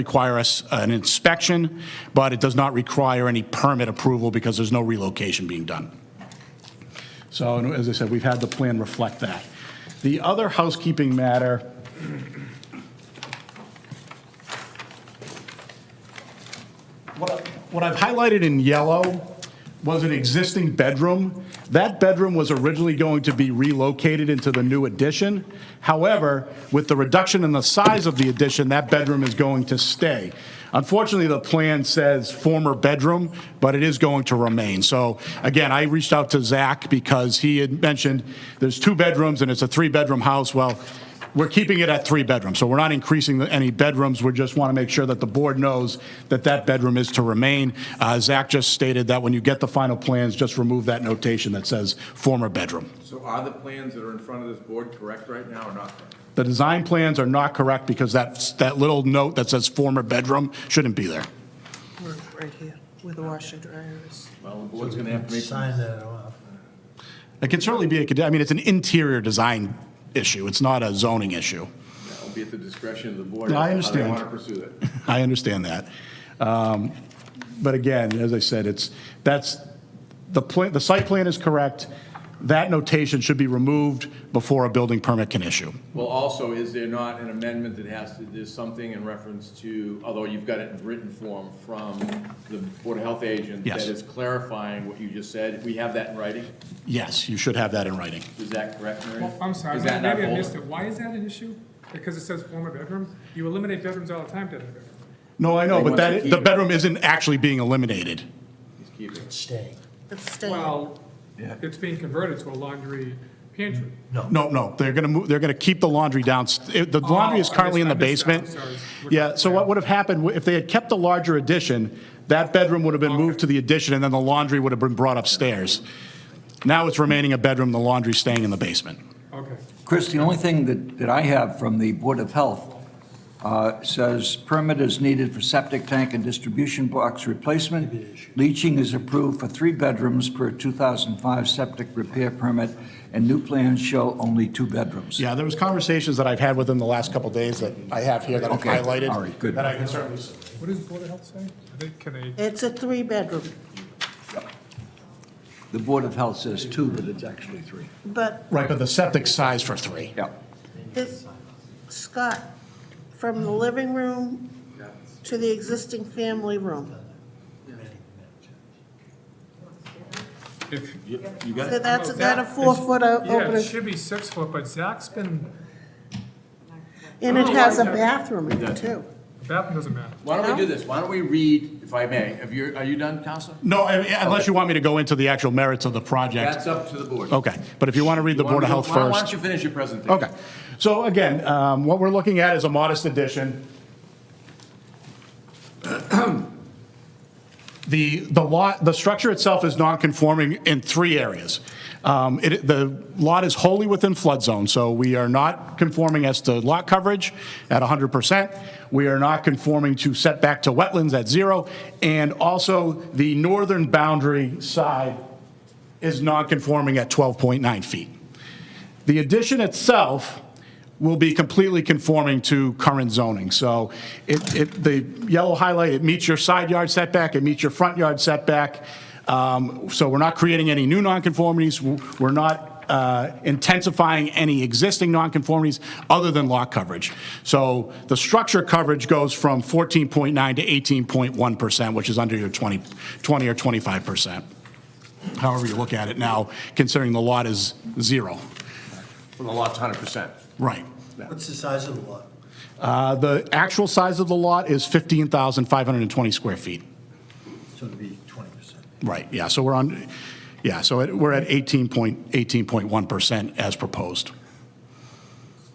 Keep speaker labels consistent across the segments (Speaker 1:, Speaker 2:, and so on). Speaker 1: require us uh, an inspection, but it does not require any permit approval because there's no relocation being done. So, and as I said, we've had the plan reflect that. The other housekeeping matter What I- what I've highlighted in yellow was an existing bedroom. That bedroom was originally going to be relocated into the new addition. However, with the reduction in the size of the addition, that bedroom is going to stay. Unfortunately, the plan says former bedroom, but it is going to remain. So again, I reached out to Zach because he had mentioned there's two bedrooms and it's a three-bedroom house. Well, we're keeping it at three bedrooms, so we're not increasing the- any bedrooms. We just want to make sure that the board knows that that bedroom is to remain. Uh, Zach just stated that when you get the final plans, just remove that notation that says former bedroom.
Speaker 2: So are the plans that are in front of this board correct right now or not?
Speaker 1: The design plans are not correct because that, that little note that says former bedroom shouldn't be there.
Speaker 3: We're right here, where the washer dryer is.
Speaker 2: Well, the board's gonna have to make some
Speaker 4: Sign that off.
Speaker 1: It can certainly be, a cond- I mean, it's an interior design issue. It's not a zoning issue.
Speaker 2: It'll be at the discretion of the board.
Speaker 1: No, I
Speaker 2: as to how they
Speaker 1: understand.
Speaker 2: wanna pursue that.
Speaker 1: I understand that. Um, But again, as I said, it's, that's, the plan, the site plan is correct. That notation should be removed before a building permit can issue.
Speaker 2: Well, also, is there not an amendment that has to, there's something in reference to, although you've got it in written form from the Board of Health agent?
Speaker 1: Yes.
Speaker 2: That is clarifying what you just said. We have that in writing?
Speaker 1: Yes, you should have that in writing.
Speaker 2: Is that correct, Mary?
Speaker 5: Well, I'm sorry,
Speaker 2: Is that
Speaker 5: maybe
Speaker 2: not
Speaker 5: I
Speaker 2: bold?
Speaker 5: missed it. Why is that an issue? Because it says former bedroom? You eliminate bedrooms all the time, doesn't it?
Speaker 1: No, I know, but
Speaker 2: They want to
Speaker 1: that,
Speaker 2: keep
Speaker 1: the
Speaker 2: it.
Speaker 1: bedroom isn't actually being eliminated.
Speaker 2: Just keep it.
Speaker 4: Stay.
Speaker 3: It's staying.
Speaker 5: Well, it's being converted to a laundry pantry.
Speaker 1: No, no, they're going to move, they're going to keep the laundry down, it- the laundry is
Speaker 5: Oh, I
Speaker 1: currently in the
Speaker 5: missed- I missed that. I'm
Speaker 1: basement.
Speaker 5: sorry.
Speaker 1: Yeah, so what would have happened, if they had kept the larger addition, that bedroom would have been moved to the addition, and then the laundry would have been brought upstairs. Now it's remaining a bedroom, the laundry's staying in the basement.
Speaker 5: Okay.
Speaker 6: Chris, the only thing that, that I have from the Board of Health uh, says permit is needed for septic tank and distribution box replacement. Leaching is approved for three bedrooms per 2005 septic repair permit, and new plans show only two bedrooms.
Speaker 1: Yeah, there was conversations that I've had within the last couple days that I have here that I've
Speaker 6: Okay,
Speaker 1: highlighted.
Speaker 6: all right, good.
Speaker 1: That I can certainly,
Speaker 5: What does Board of Health say? I think, can they,
Speaker 3: It's a three-bedroom,
Speaker 6: The Board of Health says two, but it's actually three.
Speaker 3: but
Speaker 1: right, but the septic size for three.
Speaker 6: Yeah.
Speaker 3: this, Scott, from the living room to the existing family room.
Speaker 5: if,
Speaker 2: You got
Speaker 3: So
Speaker 2: it?
Speaker 3: That's,
Speaker 5: That
Speaker 3: that a
Speaker 5: is-
Speaker 3: four-foot o-
Speaker 5: yeah, it
Speaker 3: opening,
Speaker 5: should be six foot, but Zach's been,
Speaker 3: and
Speaker 5: Oh,
Speaker 3: it has a bathroom in it, too.
Speaker 5: bathroom doesn't matter.
Speaker 2: Why don't we do this? Why don't we read, if I may, if you're, are you done, Counselor?
Speaker 1: No, I mean, unless you want me to go into the actual merits of the project.
Speaker 2: That's up to the board.
Speaker 1: Okay, but if you want to read Oh, the
Speaker 2: You wanna
Speaker 1: Board of
Speaker 2: do-
Speaker 1: Health
Speaker 2: why- Why
Speaker 1: first.
Speaker 2: don't you finish your presentation?
Speaker 1: Okay, so again, um, what we're looking at is a modest addition. The, the lot, the structure itself is non-conforming in three areas. Um, it- The lot is wholly within flood zone, so we are not conforming as to lot coverage at 100%. We are not conforming to setback to wetlands at zero, and also the northern boundary side is non-conforming at 12.9 feet. The addition itself will be completely conforming to current zoning. So it, it, the yellow highlight, it meets your side yard setback, it meets your front yard setback. Um, So we're not creating any new nonconformities. We're not uh, intensifying any existing nonconformities other than lot coverage. So the structure coverage goes from 14.9 to 18.1%, which is under your 20, 20 or 25%. However you look at it now, considering the lot is zero.
Speaker 2: Well, the lot's hundred percent.
Speaker 1: Right.
Speaker 4: What's the size of the lot?
Speaker 1: Uh, The actual size of the lot is 15,520 square feet.
Speaker 4: So it'd be 20%.
Speaker 1: Right, yeah, so we're on, yeah, so it- we're at 18.18.1% as proposed.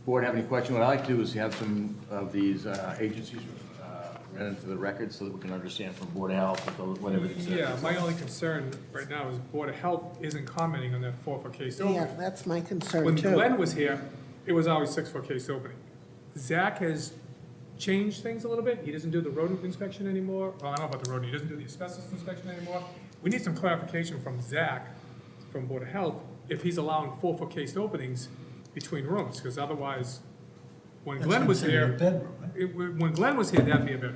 Speaker 2: Board have any question? What i like to do is have some of these uh, agencies uh, run into the record so that we can understand from Board of Health, what- whatever it
Speaker 5: Yeah,
Speaker 2: says.
Speaker 5: my only concern right now is Board of Health isn't commenting on that four foot case
Speaker 3: Yeah,
Speaker 5: opening.
Speaker 3: that's my concern,
Speaker 5: When
Speaker 3: too.
Speaker 5: Glenn was here, it was always six foot case opening. Zach has changed things a little bit. He doesn't do the rodent inspection anymore. Well, I don't know about the rodent, he doesn't do the asbestos inspection anymore. We need some clarification from Zach, from Board of Health, if he's allowing four foot case openings between rooms, because otherwise When
Speaker 4: That's
Speaker 5: Glenn was
Speaker 4: considered a
Speaker 5: here,
Speaker 4: bedroom, right?
Speaker 5: it- when Glenn was here, that'd be a bedroom.